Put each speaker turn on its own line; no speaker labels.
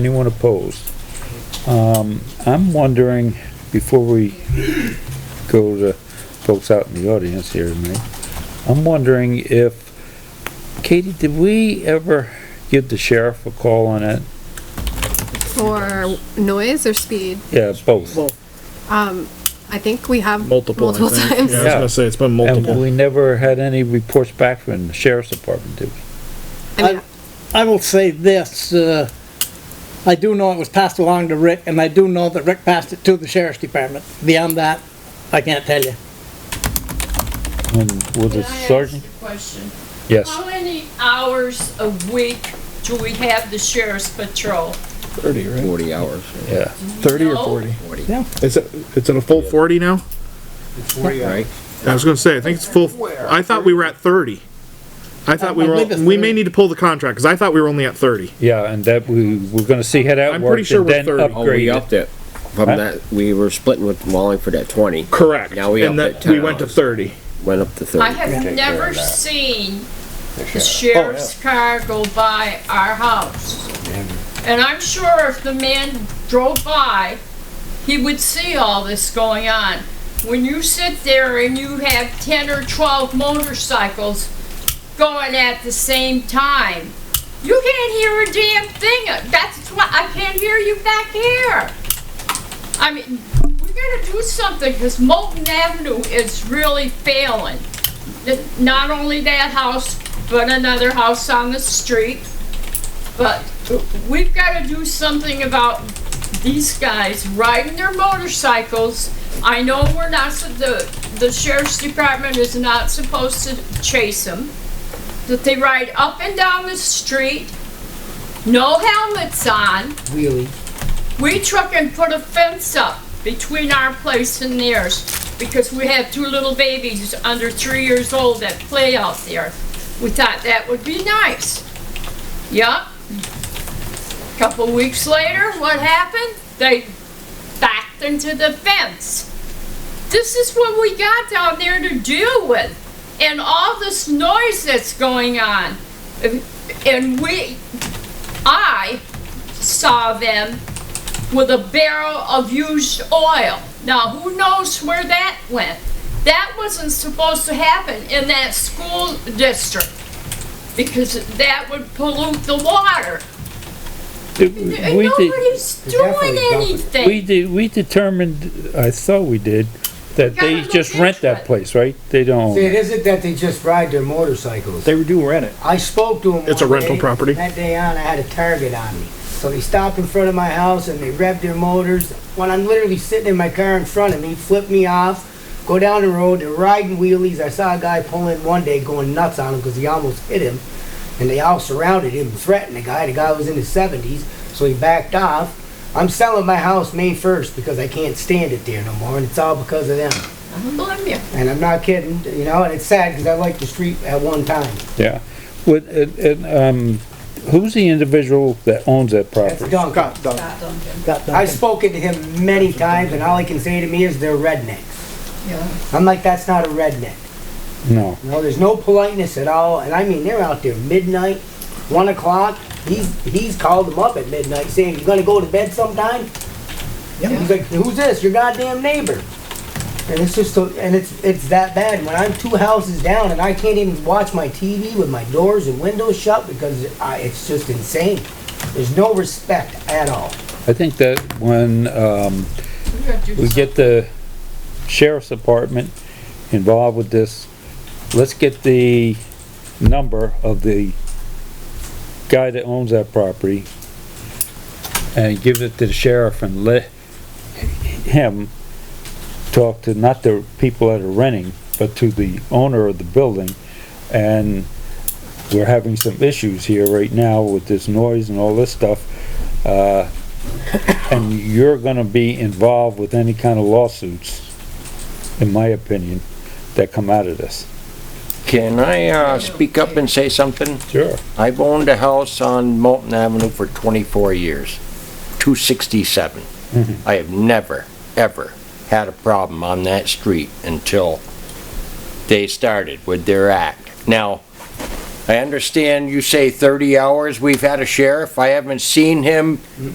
Anyone opposed? Um, I'm wondering, before we go to folks out in the audience here tonight, I'm wondering if, Katie, did we ever give the sheriff a call on it?
For noise or speed,
Yeah, both.
Well,
I think we have
multiple, I
multiple
think.
times.
Yeah, I was
Yeah.
gonna say, it's been
And
multiple.
we never had any reports back from the sheriff's department, did we?
I mean,
I will say this, uh, I do know it was passed along to Rick, and I do know that Rick passed it to the sheriff's department. Beyond that, I can't tell you.
And with the
Can I ask
sergeant?
a Question.
Yes,
How many hours a week do we have the sheriff's patrol?
Thirty, right?
Forty hours.
yeah.
Thirty or
No.
forty?
Forty.
Yeah.
Is it, it's at a full forty now?
Right?
I was gonna say, I think it's full, I thought we were at thirty. I thought we
I
were,
believe it's
we may
30.
need to pull the contract, cause I thought we were only at thirty.
Yeah, and that we, we're gonna see how that
I'm pretty
works
sure
and
we're
then
30.
Oh, we
upgrade it.
upped it. From
Huh?
that, we were splitting with Wallingford at twenty,
Correct.
Now we
And
upped it
that-
10
We went to
hours.
thirty.
went up to thirty.
I have never seen the sheriff's car go by our house. And I'm sure if the man drove by, he would see all this going on. When you sit there and you have ten or twelve motorcycles going at the same time, you can't hear a damn thing. That's why I can't hear you back here. I mean, we gotta do something, because Molten Avenue is really failing. N- Not only that house, but another house on the street. But we've gotta do something about these guys riding their motorcycles. I know we're not, su- the, the sheriff's department is not supposed to chase them. That they ride up and down the street, no helmets on. We took and put a fence up between our place and theirs because we have two little babies under three years old that play out there. We thought that would be nice. Yup. Couple weeks later, what happened? They backed into the fence. This is what we got down there to deal with. And all this noise that's going on. And we, I saw them with a barrel of used oil. Now, who knows where that went? That wasn't supposed to happen in that school district because that would pollute the water.
Did-
And
we did-
nobody's doing
We
anything.
did, we determined, I thought we did, that
Gotta
they
look
just rent
into
that
it.
place, right? They don't.
See, it isn't that they just ride their motorcycles.
They do rent it.
I spoke to him.
It's a
one
rental
day.
property.
That day on, I had a target on me. So they stopped in front of my house and they revved their motors. When I'm literally sitting in my car in front of me, flip me off, go down the road, they're riding wheelies. I saw a guy pull in one day going nuts on him because he almost hit him. And they all surrounded him, and threatened the guy. The guy was in his 70s, so he backed off. I'm selling my house May 1st because I can't stand it there no more, and it's all because of them.
I don't blame you.
And I'm not kidding, you know, and it's sad because I liked the street at one time.
Yeah, with, and, and, um, who's the individual that owns that
That's
property?
Duncan.
Got
I've
that.
spoken to him many times, and all he can say to me is they're rednecks.
Yeah.
I'm like, that's not a redneck.
No,
You know, there's no politeness at all, and I mean, they're out there midnight, one o'clock. He's he's called them up at midnight saying, "You gonna go to bed sometime?" He's like, "Who's this? Your goddamn neighbor." And it's just so, and it's it's that bad. When I'm two houses down and I can't even watch my TV with my doors and windows shut because I, it's just insane. There's no respect at all.
I think that when, um,
We gotta do
we get the sheriff's department involved with this, let's get the number of the guy that owns that property and give it to the sheriff and let him talk to, not the people that are renting, but to the owner of the building. And we're having some issues here right now with this noise and all this stuff. Uh, and you're gonna be involved with any kind of lawsuits, in my opinion, that come out of this.
Can I, uh, speak up and say something?
Sure.
I've owned a house on Moulton Avenue for twenty-four years, two sixty-seven. I have never, ever had a problem on that street until they started with their act. Now, I understand you say thirty hours, we've had a sheriff, I haven't seen him